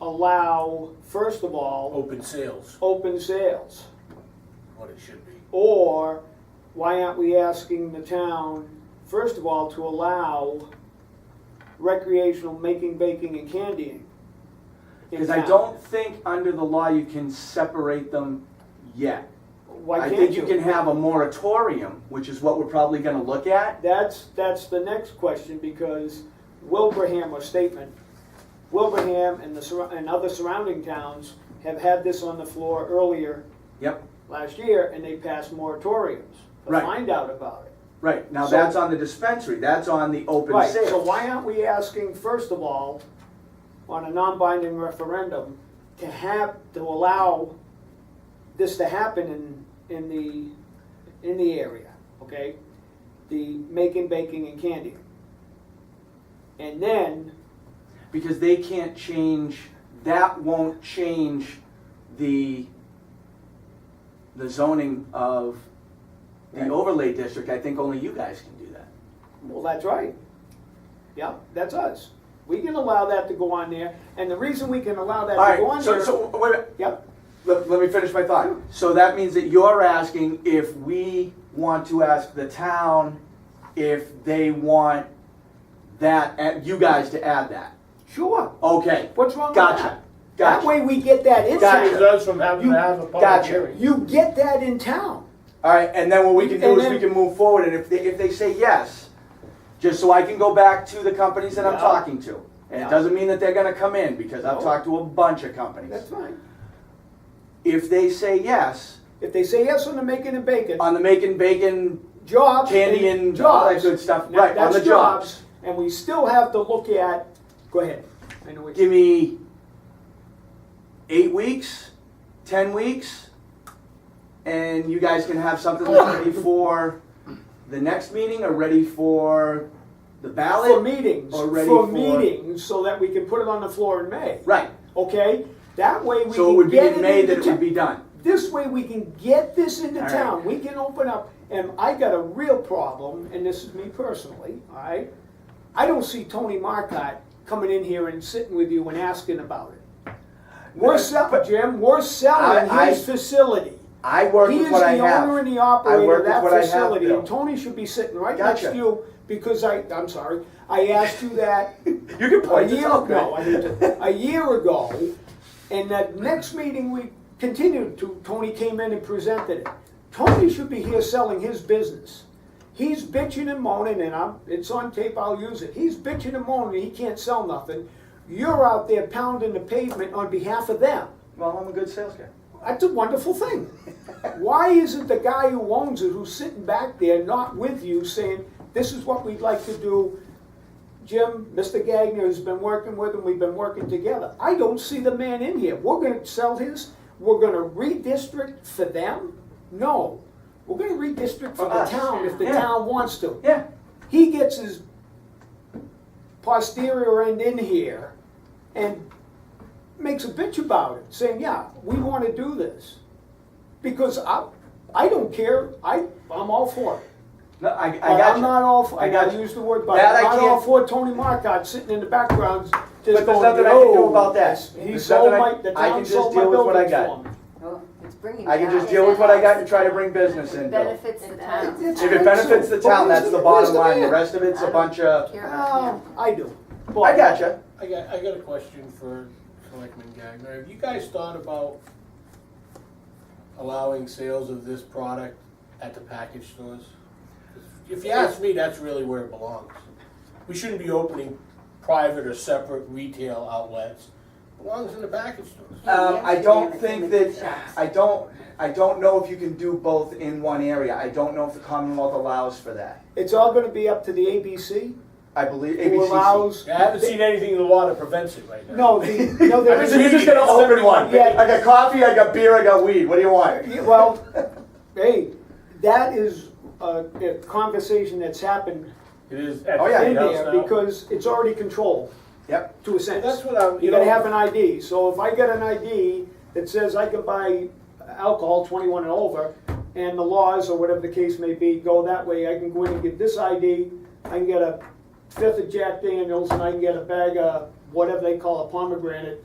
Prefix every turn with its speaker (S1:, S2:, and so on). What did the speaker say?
S1: allow, first of all,
S2: Open sales,
S1: open sales?
S2: what it should be.
S1: Or why aren't we asking the town, first of all, to allow recreational making, baking, and candying? in
S3: Because I
S1: town?
S3: don't think under the law you can separate them yet.
S1: Why
S3: I
S1: can't
S3: think you can have a moratorium, which is what we're probably gonna look at.
S1: That's, that's the next question, because Wilbraham, or statement, Wilbraham and the, surra- and other surrounding towns have had this on the floor earlier
S3: Yep,
S1: last year, and they passed moratoriums to
S3: Right.
S1: find out about it.
S3: right, now
S1: So-
S3: that's on the dispensary, that's on the open
S1: Right,
S3: sale.
S1: so why aren't we asking, first of all, on a non-binding referendum, to have, to allow this to happen in, in the, in the area, okay? The making, baking, and candy. And then,
S3: Because they can't change, that won't change the, the zoning of the
S1: Right.
S3: overlay district, I think only you guys can do that.
S1: well, that's right. Yep, that's us. We can allow that to go on there, and the reason we can allow that to go
S3: Alright,
S1: on
S3: so,
S1: there.
S3: so, wait, a minute.
S1: Yep,
S3: let, let me finish my thought. So that means that you're asking if we want to ask the town if they want that, and you guys to add that.
S1: sure.
S3: Okay,
S1: What's wrong with that?
S3: gotcha,
S1: That
S3: gotcha.
S1: way we get that insight.
S3: Gotcha.
S2: Saves us from having to have a public
S3: Gotcha.
S2: hearing.
S1: You get that in town.
S3: Alright, and then what we can do
S1: And
S3: is we
S1: then-
S3: can move forward, and if they, if they say yes, just so I can go back to the companies that I'm
S1: Yeah.
S3: talking to. And
S1: Yeah.
S3: it doesn't mean that they're gonna come in, because I've
S1: No.
S3: talked to a bunch of companies.
S1: That's fine.
S3: If they say yes,
S1: If they say yes on the making and baking,
S3: on the making bacon
S1: jobs.
S3: candy and all that good stuff,
S1: Now,
S3: right, on
S1: that's
S3: the jobs.
S1: And we still have to look at, go ahead. I know what you-
S3: give me eight weeks, ten weeks, and you guys can have something that's ready for the next meeting or ready for the ballot.
S1: For meetings,
S3: Or ready
S1: for
S3: for-
S1: meetings, so that we can put it on the floor in May.
S3: Right.
S1: Okay? That way we
S3: So it
S1: can
S3: would be
S1: get
S3: in May
S1: it
S3: that
S1: into
S3: it would be
S1: town.
S3: done.
S1: This way we can get this into
S3: All right.
S1: town. We can open up, and I got a real problem, and this is me personally, all right? I don't see Tony Marcotte coming in here and sitting with you and asking about it. We're selling, Jim, we're
S3: I-
S1: selling
S3: I-
S1: his facility.
S3: I work
S1: He
S3: with
S1: is
S3: what I
S1: the
S3: have.
S1: owner and the
S3: I
S1: operator
S3: work
S1: of
S3: with
S1: that
S3: what I have,
S1: facility,
S3: Bill.
S1: and Tony should be sitting right next
S3: Gotcha.
S1: to you, because I, I'm sorry, I asked you that
S3: You can
S1: a
S3: point this
S1: year
S3: out.
S1: ago, I mean, a year ago, and that next meeting we continued to, Tony came in and presented it. Tony should be here selling his business. He's bitching and moaning, and I'm, it's on tape, I'll use it. He's bitching and moaning, he can't sell nothing. You're out there pounding the pavement on behalf of them.
S3: Well, I'm a good sales guy.
S1: That's a wonderful thing. Why isn't the guy who owns it, who's sitting back there, not with you, saying, this is what we'd like to do? Jim, Mr. Gagner has been working with him, we've been working together. I don't see the man in here. We're gonna sell his, we're gonna redistrict for them? No. We're gonna redistrict for
S3: For
S1: the
S3: us.
S1: town if the
S3: Yeah.
S1: town wants to.
S3: Yeah.
S1: He gets his posterior end in here and makes a bitch about it, saying, yeah, we want to do this. Because I, I don't care, I, I'm all for it.
S3: No, I, I
S1: But
S3: got
S1: I'm
S3: you.
S1: not all for,
S3: I
S1: and
S3: got
S1: I
S3: you.
S1: use the word, but
S3: That I
S1: I'm not all
S3: can't-
S1: for Tony Marcotte sitting in the background just
S3: But there's
S1: going,
S3: nothing I can do
S1: "No,
S3: about that.
S1: He
S3: There's
S1: sold
S3: nothing I-
S1: my, the
S3: I can
S1: town
S3: just
S1: sold my
S3: deal with what I
S1: buildings
S3: got.
S1: for me.
S4: Well, Oh, it's bringing.
S3: I can
S4: down
S3: just
S4: his
S3: deal with what I got
S4: house.
S3: and try to bring business in, Bill.
S4: Benefits the town.
S1: It's-
S3: If it benefits the town, that's the bottom line. The rest of it's a bunch of,
S4: Here,
S1: Oh, I do.
S3: I got you.
S2: I got, I got a question for Selectman Gagner. Have you guys thought about allowing sales of this product at the package stores? If you ask me, that's really where it belongs. We shouldn't be opening private or separate retail outlets. It belongs in the package stores.
S3: Um, I don't think that,
S4: Shops.
S3: I don't, I don't know if you can do both in one area. I don't know if the Commonwealth allows for that.
S1: It's all gonna be up to the ABC,
S3: I believe
S1: who
S3: ABCC.
S1: allows.
S2: I haven't seen anything in the law that prevents it right
S1: No,
S2: now.
S1: the, no,
S3: I
S1: there
S3: mean,
S1: is.
S3: so you're just gonna open one.
S1: Yeah.
S3: I got coffee, I got beer, I got weed. What do you want?
S1: Yeah, Well, hey, that is a, a conversation that's happened
S2: It is at
S3: Oh, yeah.
S1: in
S2: the house
S1: there
S2: now.
S1: because it's already controlled
S3: Yep.
S1: to a sense.
S2: That's what I'm, you
S1: You gotta
S2: know-
S1: have an ID, so if I get an ID that says I can buy alcohol twenty-one and over, and the laws or whatever the case may be go that way, I can go in and get this ID, I can get a fifth of Jack Daniels, and I can get a bag of whatever they call a pomegranate